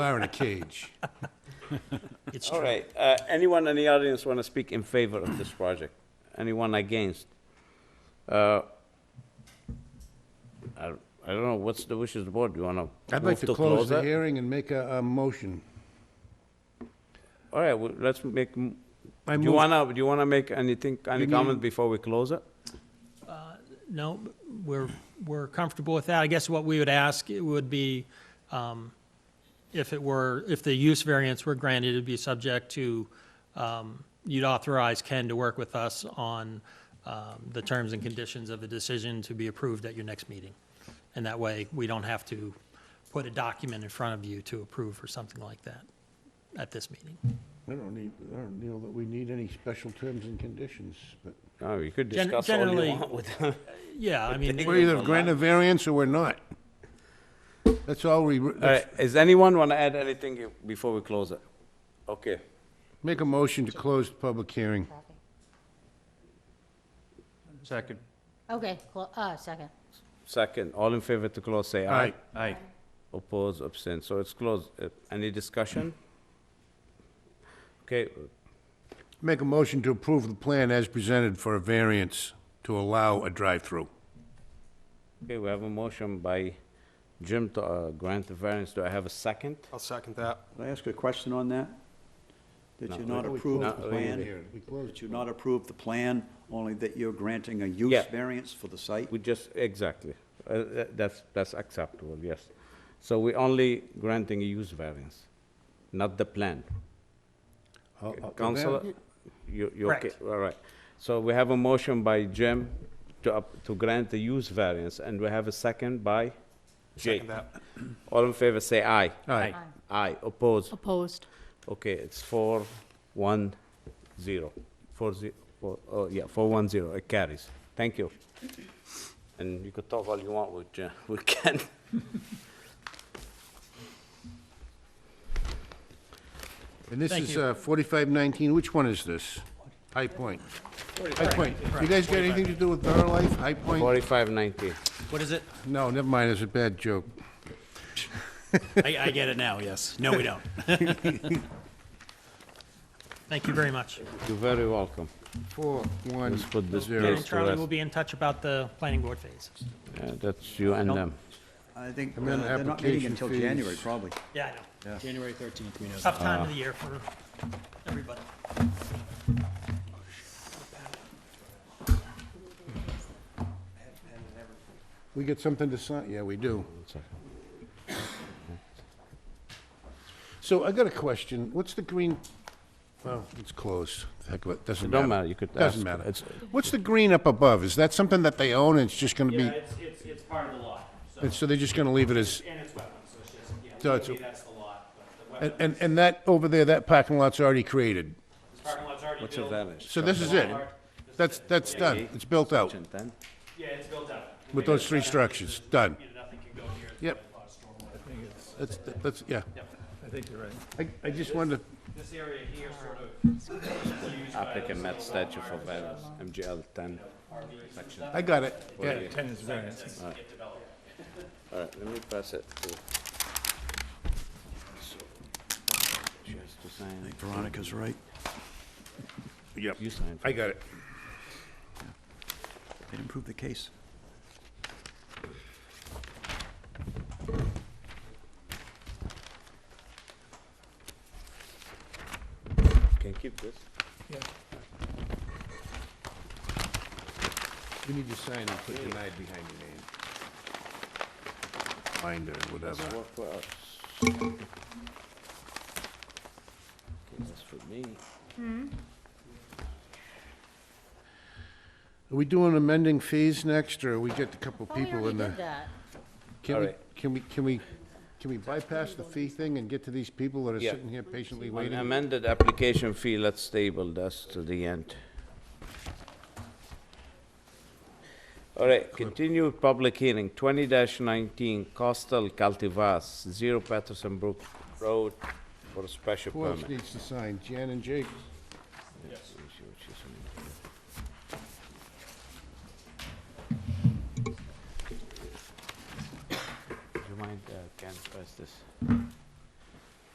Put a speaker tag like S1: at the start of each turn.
S1: are in a cage.
S2: It's
S3: All
S2: true.
S3: right, uh, anyone in the audience want to speak in favor of this project? Anyone against? Uh, I don't- I don't know, what's the wishes of the board? Do you want to
S1: I'd
S3: move
S1: like
S3: to
S1: to close the
S3: it?
S1: hearing and make a, a motion.
S3: All right, well, let's make, m-
S1: I
S3: do you
S1: move-
S3: want to, do you want to make anything, any comment before we close it?
S2: No, we're, we're comfortable with that. I guess what we would ask it would be, um, if it were, if the use variance were granted, it'd be subject to, um, you'd authorize Ken to work with us on um, the terms and conditions of the decision to be approved at your next meeting. And that way, we don't have to put a document in front of you to approve or something like that at this meeting.
S1: I don't need, I don't know that we need any special terms and conditions, but.
S3: Oh, you could
S2: Gen-
S3: discuss all you
S2: generally-
S3: want with them.
S2: Yeah, I mean,
S1: We're either granting a variance or we're not. That's all we,
S3: All right,
S1: let's
S3: is anyone want to add anything you- before we close it? Okay,
S1: make a motion to close the public hearing.
S4: Second.
S5: Okay, cool, uh, second.
S3: second, all in favor to close, say
S1: All
S3: aye.
S1: right,
S4: Aye.
S3: Oppose, abstain, so it's closed. Uh, Any discussion? Okay,
S1: make a motion to approve the plan as presented for a variance to allow a drive-through.
S3: Okay, we have a motion by Jim to uh, grant the variance. Do I have a second?
S6: I'll second that.
S4: Can I ask a question on that? That you not approve the
S3: not
S4: plan? That you not approve the plan, only that you're granting a use
S3: Yeah.
S4: variance for the site?
S3: We just, exactly. Uh, tha- That's, that's acceptable, yes. So we're only granting a use variance, not the plan.
S6: Oh,
S3: Counselor, you, you okay?
S2: Correct.
S3: All right. So we have a motion by Jim to, up- to grant the use variance, and we have a second by Jake.
S6: Second that.
S3: All in favor, say aye.
S1: Aye.
S3: Aye, oppose.
S5: Opposed.
S3: Okay, it's four, one, zero. Four, ze- four, oh, yeah, four, one, zero, it carries. Thank you. And you could talk all you want with, Jan- with Ken.
S1: And this
S2: Thank
S1: is
S2: you.
S1: uh, 4519, which one is this? High Point. High Point. You guys got anything to do with Borough Life, High Point?
S3: Forty-five ninety.
S2: what is it?
S1: No, never mind, it's a bad joke.
S4: Uh,
S2: I, I get it now, yes. No, we don't. Thank you very much.
S3: You're very welcome.
S1: Four, one,
S3: Let's put this
S1: zero.
S2: Ken
S3: place
S2: and
S3: to
S2: Charlie will
S3: rest.
S2: be in touch about the planning board phase.
S3: Yeah, That's you and
S4: Nope.
S3: them.
S4: I think uh,
S1: And then
S4: they're not meeting
S1: application
S4: until
S1: fees.
S4: January, probably.
S2: Yeah, I know.
S7: January 13th, we know that.
S2: Tough time of the year for everybody.
S1: We get something to sign, yeah, we do. So I got a question, what's the green, well, it's closed, heck, of it doesn't
S3: It
S1: matter.
S3: don't matter, you could
S1: Doesn't
S3: ask.
S1: matter.
S3: It's-
S1: What's the green up above, is that something that they own and it's just gonna
S7: Yeah,
S1: be,
S7: it's, it's, it's part of the lot, so,
S1: and so they're just gonna leave it as,
S7: and it's wetland, so it's just, yeah,
S1: So it's
S7: legally
S1: a-
S7: that's the lot, but the
S1: and,
S7: wetland,
S1: and, and that over there, that parking lot's already created?
S7: this parking lot's already
S3: What's your
S7: built.
S3: variance?
S1: So this is it? That's, that's done, it's built out,
S3: Ten, ten?
S7: Yeah, it's built out.
S1: with those three structures, done.
S7: You know, nothing can go near it.
S1: Yep.
S7: There's a lot of stormwater.
S1: That's, that's, yeah. I think you're right. I, I just wanted to
S7: This area here sort of is used by
S3: Applicant
S7: those
S3: met
S7: little
S3: statute for variance, MGL ten. section
S1: I got it. Yeah.
S3: 48.
S7: RVs that get developed.
S3: All right, let me pass it to. She has to sign.
S4: Veronica's right.
S1: Yep.
S3: You signed.
S1: I got it.
S4: They'd improve the case.
S3: Can keep this.
S1: You need to sign and put denied behind your name. Binder, whatever.
S3: Work for us. Okay, that's for me.
S1: Are we doing amending fees next, or we get a couple
S5: Thought Oh, we
S1: people
S5: already
S1: in
S5: did
S1: the?
S5: that.
S1: Can
S3: All
S1: we,
S3: right.
S1: can we, can we, can we bypass the fee thing and get to these people that are
S3: Yeah.
S1: sitting here patiently
S3: On
S1: waiting?
S3: amended application fee, let's table this to the end. All right, continued public hearing, twenty nineteen Coastal Cultivars, Zero Patterson Brook Road for a special
S1: Who else
S3: permit.
S1: needs to sign? Jan and Jake?
S3: Do you mind, uh, Ken, pass this?